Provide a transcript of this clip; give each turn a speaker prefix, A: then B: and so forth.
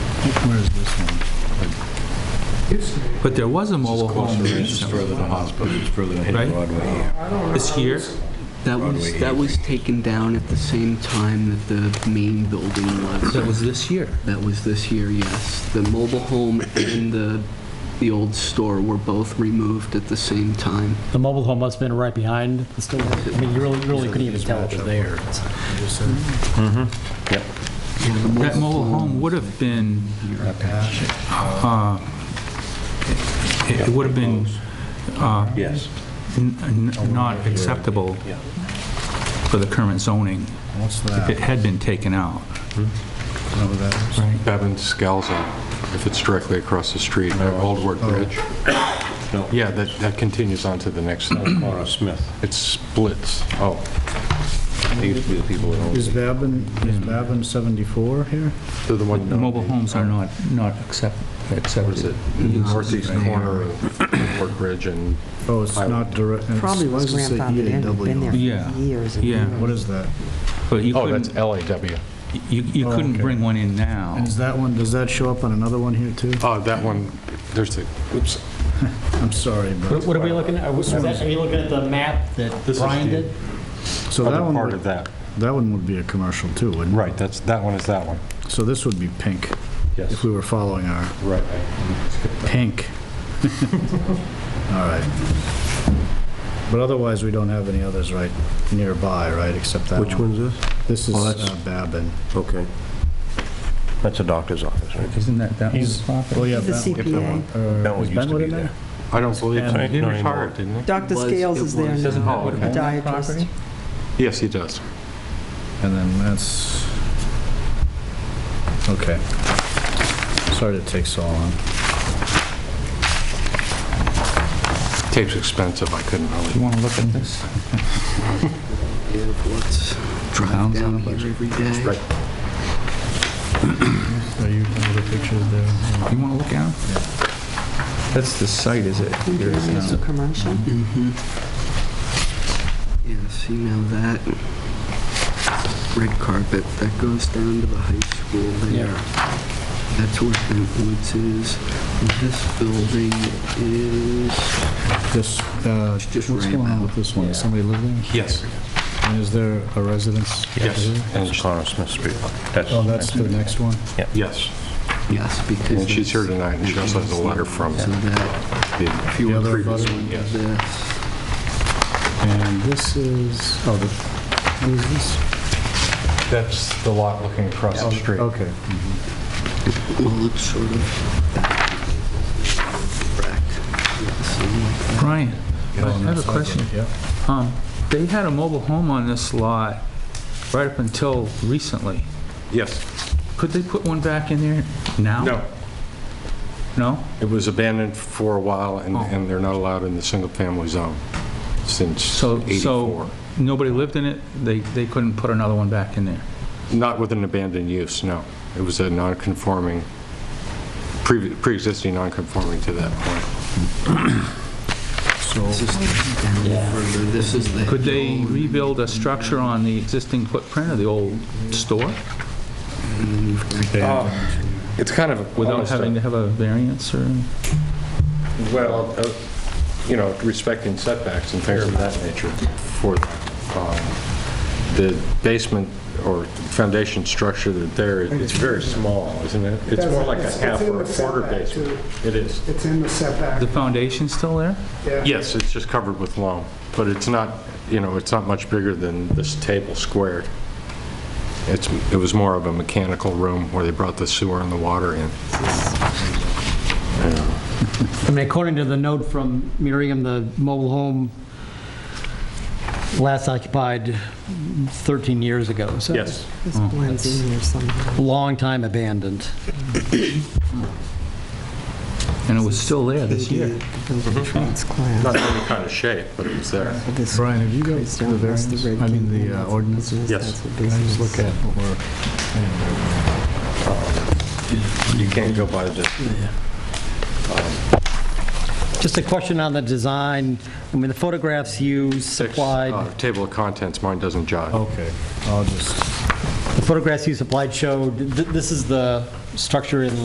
A: Where is this one?
B: But there was a mobile home
C: This
B: there
C: is
B: somewhere,
C: further to hospital, it's further to
B: Right.
C: hit Broadway here.
B: It's here.
D: That
C: Broadway
D: was, that was taken down at the same time that the main building
B: That
D: was.
B: was this year.
D: That was this year, yes. The mobile home and the, the old store were both removed at the same time.
E: The mobile home must have been right behind the store. I mean, you really, really couldn't even tell it was there.
B: That mobile home would have been, uh, it it would have been uh,
C: Yes.
B: n- n- not acceptable for the current zoning
A: What's
B: if it
A: that?
B: had been taken out.
A: Know what that is?
F: Bevan Scalzo, if it's directly across the street, at Old Ward Bridge.
C: No.
F: Yeah, that, that continues on to the next,
C: Mara Smith.
F: it splits.
C: Oh. They used to be the people that owned
A: Is
C: it.
A: Babin, is Babin 74 here?
F: To the one,
B: Mobile homes are not, not accept-
F: what is
B: accepted.
F: it, northeast corner of Ward Bridge and
A: Oh, it's
F: I-
A: not direct. it's-
G: Probably was
A: it's E a
G: grandfathered in,
A: EAW.
G: been there for
B: Yeah,
G: years and
B: yeah.
G: years.
A: What is that?
B: But you
F: Oh, that's
B: couldn't,
F: LAW.
B: you you
A: Oh,
B: couldn't
A: okay.
B: bring one in now.
A: And is that one, does that show up on another one here too?
F: Oh, that one, there's the, oops,
A: I'm sorry, but,
E: What are we looking at? Are we- is that- are you looking at the map that
C: This is
E: Brian
C: the-
E: did?
A: so that
C: Other
A: one,
C: part
A: would-
C: of that.
A: that one would be a commercial too, wouldn't it?
C: Right, that's, that one is that one.
A: So this would be pink,
C: Yes.
A: if we were following our
C: Right.
A: pink. All right. But otherwise, we don't have any others right nearby, right, except that one?
C: Which one's this?
A: This is
C: Oh, that's-
A: uh, Babin.
C: Okay. That's a doctor's office, right?
B: Isn't that that one's
A: Oh,
B: property?
A: yeah,
G: He's the
A: Bentwood.
G: CPA.
C: That one
A: Is
C: used to
A: Bentwood
C: be
A: in there?
C: there.
F: I don't believe so.
B: And-
F: He retired, didn't he?
G: Dr.
D: Was-
G: Scales
D: it
G: is there
D: was-
B: Doesn't
G: now,
B: Paul
G: a
B: would have owned that
G: podiatrist.
B: property?
F: Yes, he does.
A: And then that's, okay. Sorry to take so long.
F: Tape's expensive, I couldn't
B: You
F: really.
B: want to look at this?
D: Yeah, let's drive
A: Sounds
D: down
A: like a
D: here
A: budget.
D: every day.
A: Are you, are the pictures there?
B: You want to look at it?
H: That's the site, is it?
G: Think you're gonna use a commercial?
D: Mm-hmm. Yeah, see now that red carpet, that goes down to the high school there. That's where Bentwoods is. This building is,
A: This, uh,
D: It's just
A: what's
D: right
A: going on
D: now.
A: with this one? Does Somebody live there?
F: Yes,
A: And is there a residence?
F: Yes.
A: over there?
C: And it's Mara Smith Street.
A: Oh, that's the next one?
F: yes.
D: yes, because.
F: And she's here
D: it's-
F: tonight, and she also has a letter from
D: So that,
F: the
D: if you
A: The
D: were
A: other
D: previous
A: butter?
D: one,
F: Yes.
D: this.
A: And this is, oh, the, what is this?
F: That's the lot looking across the street.
A: Okay.
D: Well, it's sort of back. Yeah, something like that.
B: Brian,
A: Yeah,
B: I
A: on that
B: have a
A: side,
B: question.
A: Yeah.
B: Um, They had a mobile home on this lot right up until recently.
F: Yes.
B: Could they put one back in there now?
F: No,
B: No?
F: It was abandoned for a while, and, and they're not allowed in the single-family zone since
B: So,
F: 84.
B: so nobody lived in it, they, they couldn't put another one back in there?
F: Not with an abandoned use, no. It was a non-conforming, pre- pre-existing non-conforming to that point.
A: So,
D: This is down further, this is the.
B: Could they
D: hill,
B: rebuild a structure on the existing footprint of the old store
D: And then you've got
F: Uh, It's kind of...
B: without having to have a variance or?
F: Well, uh, you know, respecting setbacks and things of that nature for um, the basement or foundation structure that there, it's very small, isn't it? It's more like a
I: It's- it's
F: half
I: in
F: or a
I: the
F: quarter
I: setback,
F: basement. It is.
I: It's in the setback,
B: The foundation's still there?
I: yeah.
F: Yes, it's just covered with loam, but it's not, you know, it's not much bigger than this table squared. It's, it was more of a mechanical room where they brought the sewer and the water in.
E: I mean, according to the note from Miriam, the mobile home last occupied 13 years ago, so.
F: Yes.
G: This
A: Oh,
G: blends in here somehow.
E: Long time abandoned.
B: And it was still there this
G: They
B: year?
G: did the
A: Uh-huh.
G: building trades class.
F: Not any kind of shape, but it was there.
G: This
A: Brian, have you got
G: goes
A: the
G: down past
A: variance?
G: red
A: I mean,
G: gate,
A: the uh,
G: that's
A: ordinance?
G: business,
F: Yes.
G: that's what
A: Can I
G: business
A: just look at what we're,
C: You can't go by the,
E: Just a question on the design. I mean, the photographs you
F: Six,
E: supplied,
F: uh, Table of contents, mine doesn't jive.
A: okay, I'll just.
E: the photographs you supplied showed, th- this is the structure in